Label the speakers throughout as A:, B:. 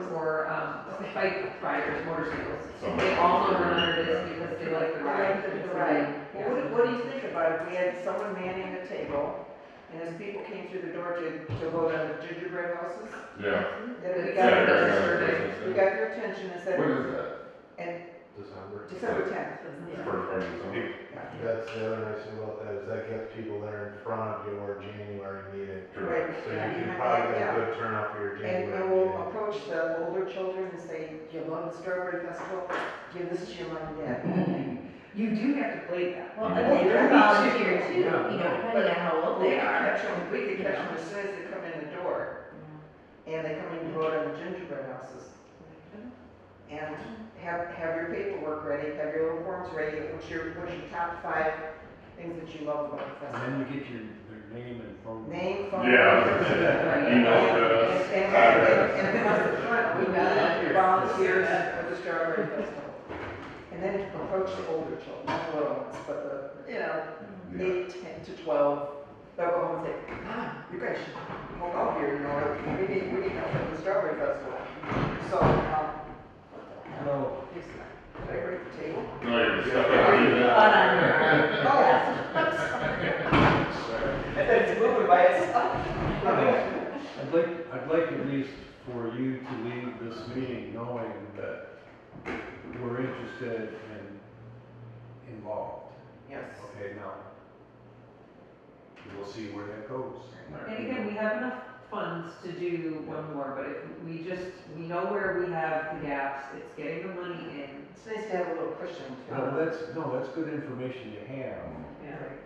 A: bike um, riders, motorcycles.
B: Some-
A: They also run under this because they like the ride.
C: Right, right. Well,
A: Yeah.
C: what, what do you think about if we had someone manning the table, and as people came through the door to, to vote on the gingerbread houses,
B: Yeah.
C: that
A: Yeah,
C: we got,
A: yeah,
C: their-
A: survey.
C: we got their attention and
B: What
C: said,
B: is that?
D: December.
C: December tenth.
B: For, for some people,
D: That's the other nice thing about that, is that gets people that are in front of your January meeting.
B: Correct.
D: So you can probably get a good turnout for your
C: And
D: January
C: and we'll
D: meeting.
C: approach the older children and say, do you love the strawberry festival? Give this to your mom and dad.
E: You do have to play that.
F: Well, and they
C: Yeah.
F: are volunteer too, you know,
D: Yeah.
F: depending on how old
C: We
F: they
C: could
F: are.
C: catch them, we could catch them as soon as they come in the door, and they come in to vote on the gingerbread houses. And have, have your paperwork ready, have your little forms ready, what's your, what's your top five things that you love about the
G: And then
C: festival?
G: you get your, their name and phone. number.
C: Name, phone.
B: Yeah, I was
C: number.
B: gonna say that.
C: And-
B: Email address,
C: And, and,
B: address.
C: and across the front, we got volunteers for the strawberry festival. And then approach the older children, not the little ones, but the, you know,
B: yeah.
C: eight, ten to twelve, they'll go home and say, ah, you guys should go out here, you know, we need, we need help at the strawberry festival. So, um,
G: No,
C: is- did I break the table?
B: No, you're stuck on
F: But,
B: email.
F: um,
C: Oh, it's moving by itself.
G: I'd like, I'd like at least for you to leave this meeting knowing that we're interested and involved.
C: Yes.
G: Okay, now, we'll see where that goes.
A: And again, we have enough funds to do one more, but if we just, we know where we have the gaps, it's getting the money in.
C: It's nice to have a little cushion
G: No,
C: too.
G: that's, no, that's good information to have,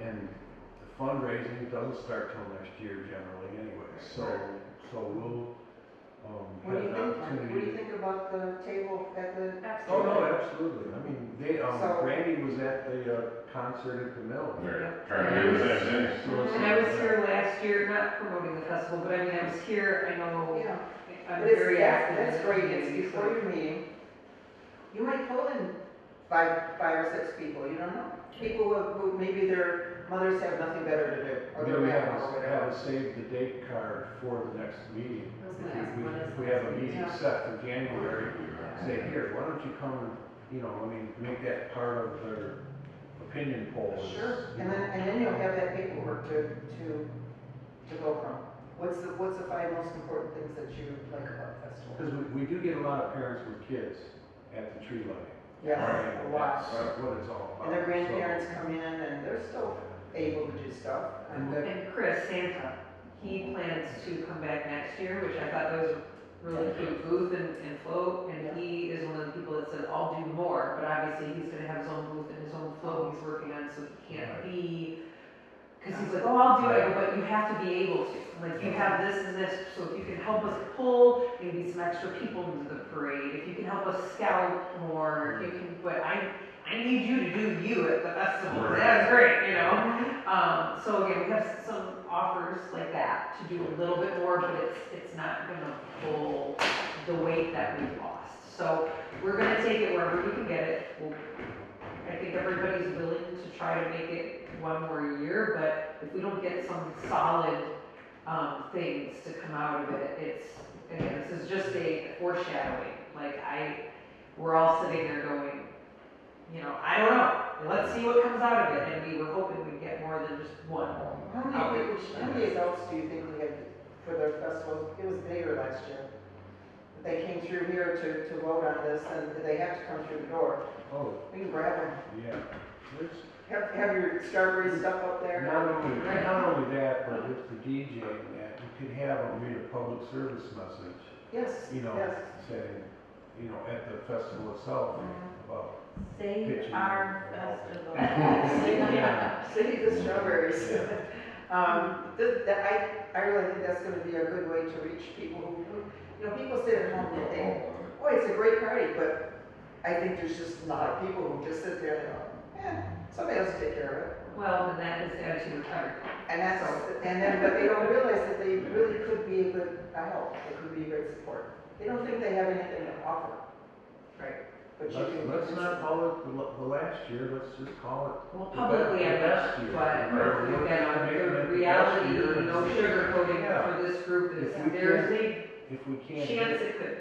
G: and the fundraising doesn't start till next year generally anyway, so, so we'll, um,
C: What do
G: have
C: you
G: an
C: think, Mike?
G: opportunity.
C: what do you think about the table at the?
G: Oh, no, absolutely. I mean, they, um,
C: So-
G: Randy was at the, uh, concert at the mill.
B: They're trying to do the same thing.
G: So it's-
A: And I was here last year, not promoting the festival, but I mean, I was here, I know,
C: Yeah.
A: I'm
C: But it's-
A: very
C: yeah,
A: active. in
C: That's
A: the
C: great, it's
A: community, so-
C: before your meeting. You might pull in five, five or six people, you don't know. People who, who, maybe their mothers have nothing better to do, or their
G: Maybe have
C: grandma, or
G: a,
C: whatever.
G: have a save the date card for the next meeting.
F: I was
G: If
F: gonna
G: we-
F: ask,
G: we-
F: when is
G: If we
F: the
G: have a
F: next
G: meeting
C: meeting?
G: set for January, say, here, why don't you come, you know, I mean, make that part of their opinion poll. is,
C: Sure,
G: you
C: and then,
G: know,
C: and then you'll have that paperwork to, to, to go from. What's the, what's the five most important things that you like about the festival?
G: Cause we, we do get a lot of parents with kids at the tree lighting.
C: Yes,
G: And
C: a lot.
G: That's what it's all about.
C: And their
G: so-
C: grandparents come in and they're still able to do stuff.
G: And that,
A: And Chris Santa, he plans to come back next year, which I thought was really cute booth and, and float. And he is one of the people that said, I'll do more, but obviously he's gonna have his own booth and his own float he's working on, so he can't be. Cause he's like, oh, I'll do it, but you have to be able to, like, you have this and this, so if you can help us pull maybe some extra people into the parade, if you can help us scout more, if you can, but I, I need you to do you at the festival, that's great, you know? Um, so again, we have some offers like that to do a little bit more, but it's, it's not gonna pull the weight that we've lost. So we're gonna take it wherever we can get it. We'll- I think everybody's willing to try to make it one more year, but if we don't get some solid, um, things to come out of it, it's, again, this is just a foreshadowing. Like I, we're all sitting there going, you know, I don't know, let's see what comes out of it, and we were hoping we'd get more than just one.
C: How many, people- how many adults do you think we had for their festival? It was bigger last year. They came through here to, to vote on this, and they have to come through the door.
G: oh,
C: We can grab them.
G: yeah. There's
C: Have, have your strawberry stuff up there.
G: Not only, not only that, but with the DJ and that, you could have them read a public service message,
C: Yes,
G: you know,
C: yes.
G: saying, you know, at the festival itself,
C: Mm-hmm.
G: about,
F: Save
G: Pitching.
F: our festival.
C: Save the strawberries.
G: Yeah.
C: Um, th- th- I, I really think that's gonna be a good way to reach people who, who- you know, people sit at home and think, boy, it's a great party, but I think there's just a lot of people who just sit there and go, eh, somebody else will take care of it.
A: Well, and that is the attitude of everyone.
C: And that's, and then, but they don't realize that they really could be a good, a help, they could be a great support. They don't think they have anything to offer. Right. But you
G: let's,
C: do.
G: let's not call it the, la- the last year, let's just call it.
A: Well, publicly, I know, but again, the reality, no sugarcoating for this group is, there's a
G: If we can't. do it-
A: chance it could